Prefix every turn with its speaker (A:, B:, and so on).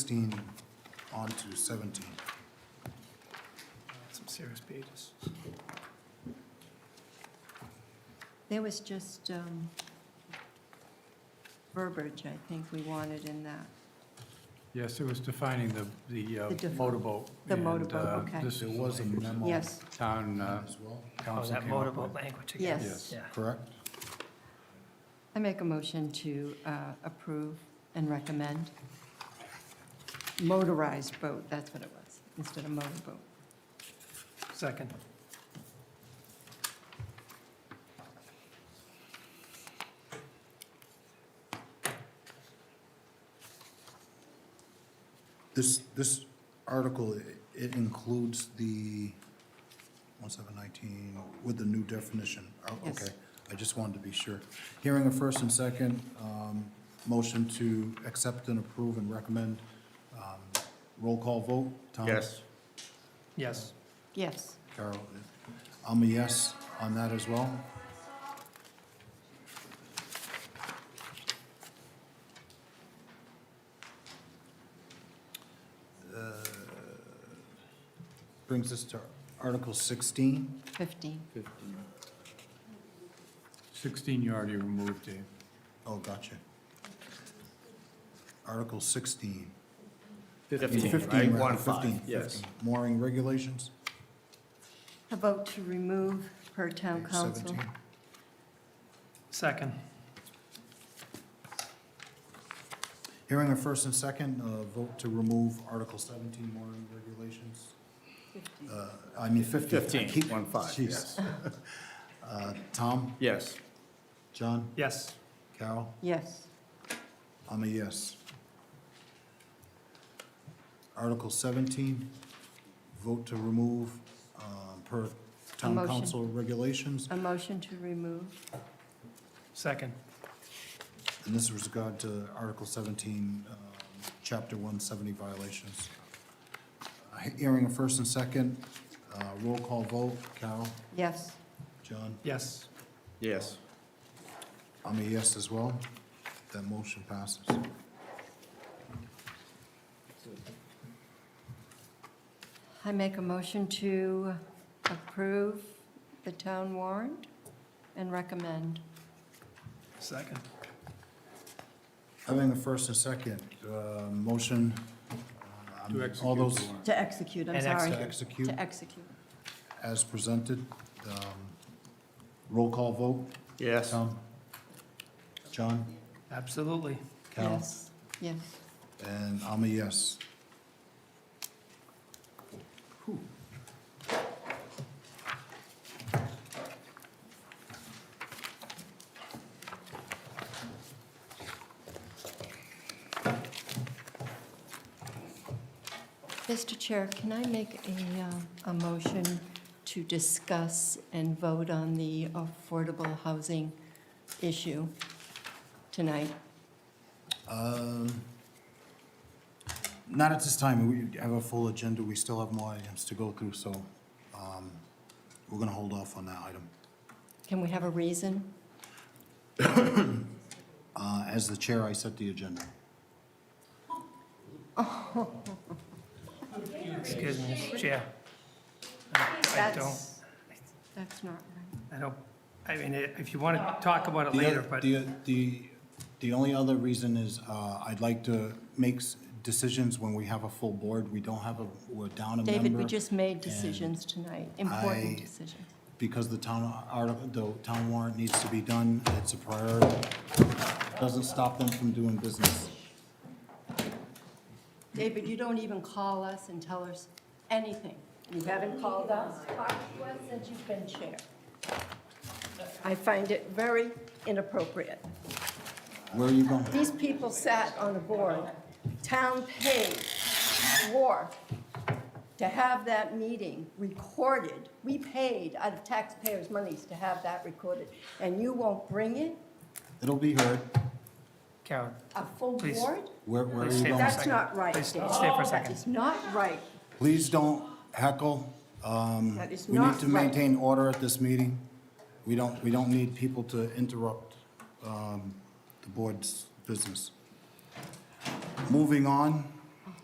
A: 16 on to 17.
B: Some serious pages.
C: There was just um, verbiage, I think, we wanted in that.
D: Yes, it was defining the, the uh,
C: The diff-
D: motorboat.
C: the
D: and,
C: motorboat,
D: uh,
C: okay.
D: This
A: There was a memo.
C: Yes,
D: town uh,
A: As well,
B: Oh,
D: council
B: that
D: came up
B: motorboat
D: with.
B: language again.
C: Yes.
B: Yeah.
A: correct?
C: I make a motion to uh, approve and recommend motorized boat, that's what it was, instead of motorboat.
B: Second.
A: This, this article, i- it includes the 1719 with the new definition. Oh,
C: Yes.
A: Okay, I just wanted to be sure. Hearing a first and second, um, motion to accept and approve and recommend. Um, Roll call vote, Tom?
E: Yes.
B: Yes.
C: Yes,
A: Carol, uh, I'm a yes on that as well. Uh, Brings us to Article 16.
C: 15.
D: 16 you already removed, Dave.
A: Oh, gotcha. Article 16.
E: right?
A: rather,
E: One five,
A: 15,
E: yes.
A: 15. Mooring regulations.
C: A vote to remove per town
A: page
C: council.
A: 17.
B: Second.
A: Hearing a first and second, uh, vote to remove Article 17 mooring regulations. Uh, I mean 15. I
E: 15,
A: keep-
E: one five,
A: Jeez.
E: yes.
A: Uh, Tom,
E: Yes.
A: John,
B: Yes.
A: Carol,
C: Yes,
A: I'm a yes. Article 17, vote to remove uh, per town
C: motion.
A: council regulations.
C: a motion to remove.
B: Second.
A: And this is regard to Article 17, um, Chapter 170 violations. Uh, Hearing a first and second, uh, roll call vote, Carol,
C: Yes,
A: John,
B: Yes.
E: Yes.
A: I'm a yes as well. That motion passes.
C: I make a motion to approve the town warrant and recommend.
B: Second.
A: Having a first and second, uh, motion, uh,
D: To
A: all
D: execute the
A: those
D: warrant.
C: To execute, I'm
B: And
C: sorry.
A: to execute
C: To execute.
A: as presented. Um, Roll call vote,
E: Yes.
A: Tom, John,
B: Absolutely.
A: Carol.
C: Yes, yes.
A: And I'm a yes. Whew.
C: Mr. Chair, can I make a, uh, a motion to discuss and vote on the affordable housing issue tonight?
A: Um, Not at this time. We have a full agenda. We still have more items to go through, so um, we're going to hold off on that item.
C: Can we have a reason?
A: Uh, As the chair, I set the agenda.
B: Excuse me, Mr. Chair. I don't,
C: That's, that's not right.
B: I don't, I mean, if you want to talk about it
A: The
B: later,
A: other-
B: but
A: The, the, the only other reason is, uh, I'd like to make s- decisions when we have a full board. We don't have a, we're down a member.
C: David, we just made decisions tonight, important
A: I-
C: decisions.
A: Because the town article, the town warrant needs to be done, it's a priority. Doesn't stop them from doing business.
C: David, you don't even call us and tell us anything. You haven't called us, talked to us since you've been chair. I find it very inappropriate.
A: Where are you going?
C: These people sat on the board, town paid, war, to have that meeting recorded. We paid out of taxpayers' monies to have that recorded, and you won't bring it,
A: It'll be heard.
B: Karen,
C: a full
B: Please.
C: board?
A: Where, where are
B: Please
A: you
B: stay for a
A: going?
C: That's
B: second.
C: not right,
B: Please
C: Dan.
B: stay for a
C: That
B: second.
C: is not right.
A: Please don't heckle. Um,
C: That is
A: we
C: not
A: need to
C: right.
A: maintain order at this meeting. We don't, we don't need people to interrupt, um, the board's business. Moving on,